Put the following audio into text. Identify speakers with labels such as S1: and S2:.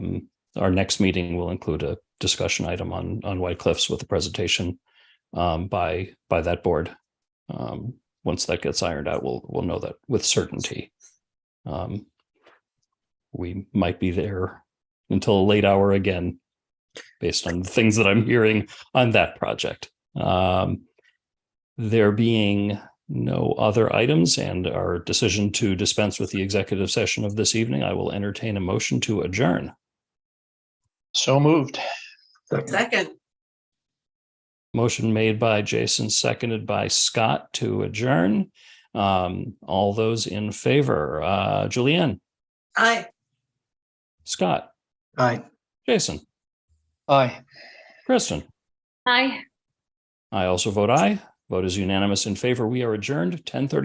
S1: Mm. Our next meeting will include a discussion item on on White Cliffs with a presentation um, by by that board. Um, once that gets ironed out, we'll we'll know that with certainty. Um, we might be there until a late hour again, based on the things that I'm hearing on that project. Um, there being no other items and our decision to dispense with the executive session of this evening, I will entertain a motion to adjourn.
S2: So moved.
S3: Second,
S1: Motion made by Jason, seconded by Scott to adjourn. Um, all those in favor, uh, Julianne,
S3: aye.
S1: Scott,
S2: Aye.
S1: Jason,
S2: Aye.
S1: Kristen.
S4: Hi.
S1: I also vote aye. Vote is unanimous in favor. We are adjourned ten thirty.